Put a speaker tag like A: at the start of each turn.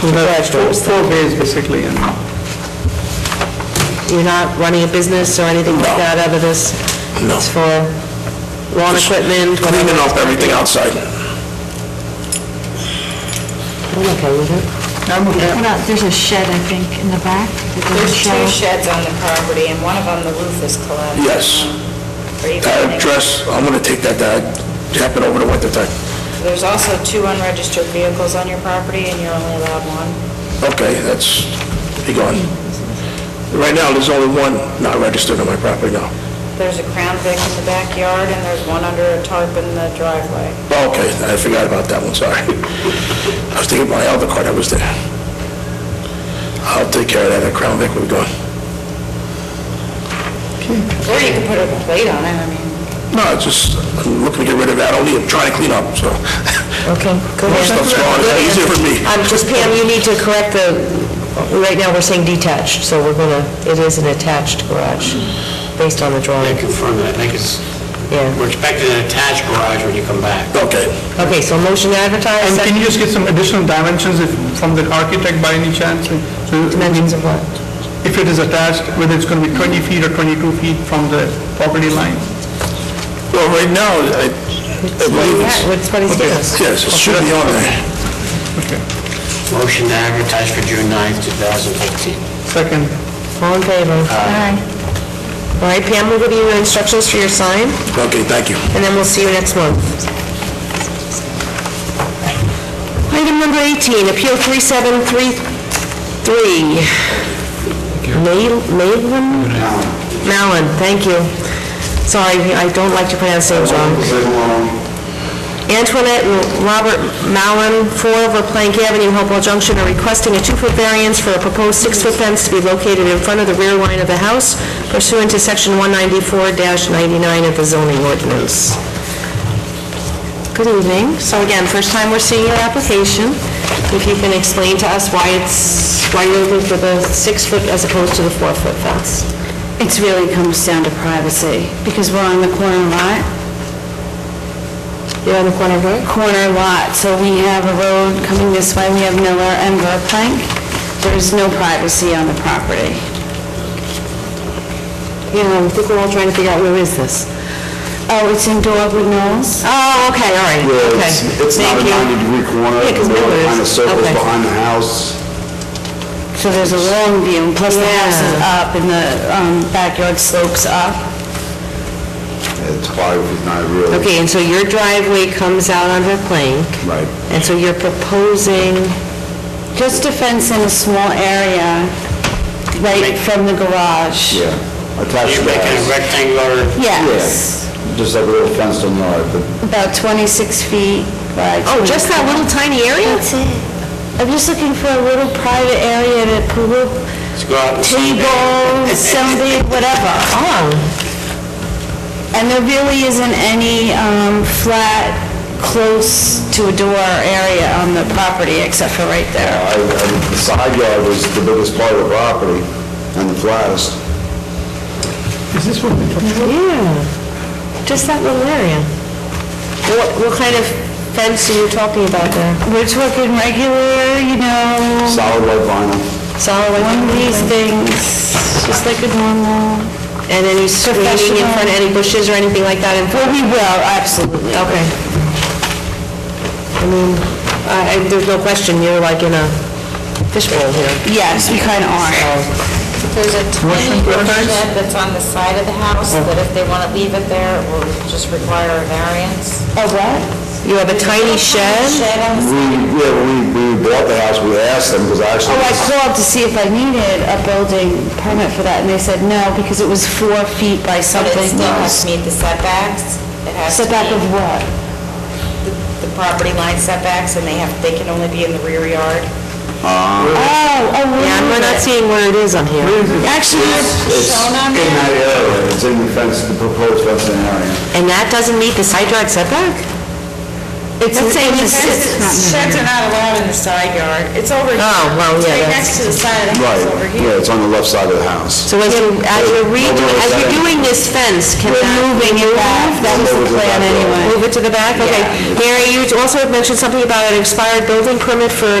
A: So that's
B: Right,
A: four
B: so-
A: four bays basically, and
B: You're not running a business or anything like that out of this?
C: No.
B: It's for lawn equipment, whatever?
C: Cleaning up everything outside.
B: I'm okay with it.
A: I'm okay.
D: What about, there's a shed, I think, in the back? that
E: There's
D: doesn't
E: two
D: show.
E: sheds on the property, and one of them, the roof is collapsed.
C: Yes.
E: Are you
C: That
E: planning-
C: address, I'm gonna take that, that happened over the winter time.
E: There's also two unregistered vehicles on your property, and you're only allowed one.
C: Okay, that's, be gone. Right now, there's only one not registered on my property now.
E: There's a Crown Vic in the backyard, and there's one under a tarp in the driveway.
C: Oh, Okay, I forgot about that one, sorry. I was thinking about my other car that was there. I'll take care of that at Crown Vic, we're going.
E: Or you could put a plate on it, I mean,
C: No, it's just, I'm looking to get rid of that, only I'm trying to clean up, so.
B: Okay, go
C: More
B: ahead.
C: stuff's gone, it's easier for me.
B: Um, just Pam, you need to correct the, right now, we're saying detached, so we're gonna, it is an attached garage, based on the
F: I
B: drawing.
F: confirm that, I think it's,
B: Yeah.
F: we're expecting an attached garage when you come back.
C: Okay,
B: Okay, so motion to advertise,
A: And can
B: second
A: you just get some additional dimensions if, from the architect by any chance? So
B: dimensions of what?
A: If it is attached, whether it's going to be 20 feet or 22 feet from the property line?
C: well, right now, I, I believe it's,
B: Yeah, What's what he's doing.
C: yes, it should be on there.
F: Motion to advertise for June 9th, 2015.
A: Second.
B: All in favor? All right, Pam, we'll give you instructions for your sign,
C: Okay, thank you.
B: and then we'll see you next month. Item number 18, Appeal 3733, Mal- Malin? Malin, thank you. Sorry, I don't like to pronounce names wrong. Antoinette and Robert Mallon, 4 over Plank Avenue, Hopewell Junction, are requesting a two-foot variance for a proposed six-foot fence to be located in front of the rear line of the house pursuant to Section 194-99 of the zoning ordinance. Good evening. So again, first time we're seeing your application. If you can explain to us why it's, why you're looking for the six-foot as opposed to the four-foot fence.
G: It really comes down to privacy, because we're on the corner lot,
B: You're on the corner of where?
G: corner lot, so we have a road coming this way, we have Miller and Verplank. There's no privacy on the property.
B: Yeah, I think we're all trying to figure out where is this.
G: Oh, it's in Dogwood Knolls?
B: Oh, okay, all right,
H: Yeah,
B: okay.
H: it's, it's not a
B: Thank you.
H: 90-degree corner,
B: Yeah, 'cause
H: the road
B: Miller
H: kind of
B: is-
H: circles
B: okay.
H: behind the house.
G: So there's a long view, and plus the house is up and the um, backyard slopes up.
H: It's five, it's not really,
B: Okay, and so your driveway comes out onto Plank,
H: right.
B: and so you're proposing,
G: Just a fence in a small area, right from the garage.
H: Yeah,
F: You're
H: attached to the
F: making a
H: house.
F: rectangular
G: Yes,
H: Yeah, Just like a little fenced in yard, but
G: about 26 feet by
B: oh, just that little tiny area?
G: That's it. I'm just looking for a little private area to put a
F: to go out and see.
G: table, something, whatever.
B: Oh,
G: And there really isn't any um, flat, close to a door area on the property except for right there.
H: I, I- the side yard was the biggest part of the property and the flattest.
B: yeah, just that little area. What, what kind of fence are you talking about there?
G: We're talking regular, you know,
H: Solid white vinyl,
B: Solid
G: one of
B: white?
G: these things, just like a normal.
B: And any screening in front of any bushes or anything like that in front?
G: Well, we will, absolutely.
B: Okay. I mean, I, I- there's no question, you're like in a fishbowl here.
G: Yes, we kind of are.
E: there's a tiny little shed that's on the side of the house, that if they want to leave it there, it will just require a variance.
G: A what?
B: You have a tiny
E: Little
B: shed?
E: Shed on the
H: we, yeah, we, we bought the house, we asked them, because actually.
G: Oh, I called to see if I needed a building permit for that, and they said no, because it was four feet by
E: But it
G: something.
E: still has to meet the setbacks. It has to
G: Setback of
E: meet
G: what?
E: the property line setbacks, and they have, they can only be in the rear yard.
G: Oh, oh, where
B: Yeah, we're not
G: is it?
B: seeing where it is on here.
G: Actually,
H: It's in that area, it's in the fence, the proposed fencing area.
B: And that doesn't meet the side yard setback?
G: it's,
B: Let's say
G: it's, it's not
E: Fences- Sheds are not allowed in the side yard. It's over here.
B: Oh, well,
E: It's
B: yeah,
E: right
B: that's-
E: next to the side of the house over
H: Right,
E: here.
H: yeah, it's on the left side of the house.
B: So as you, as you're redoing, as you're doing this fence, can that...
G: moving it back. That was the
H: Move it
G: plan
H: back.
G: anyway.
B: Move it to the back? Okay. Mary, you also mentioned something about an expired building permit for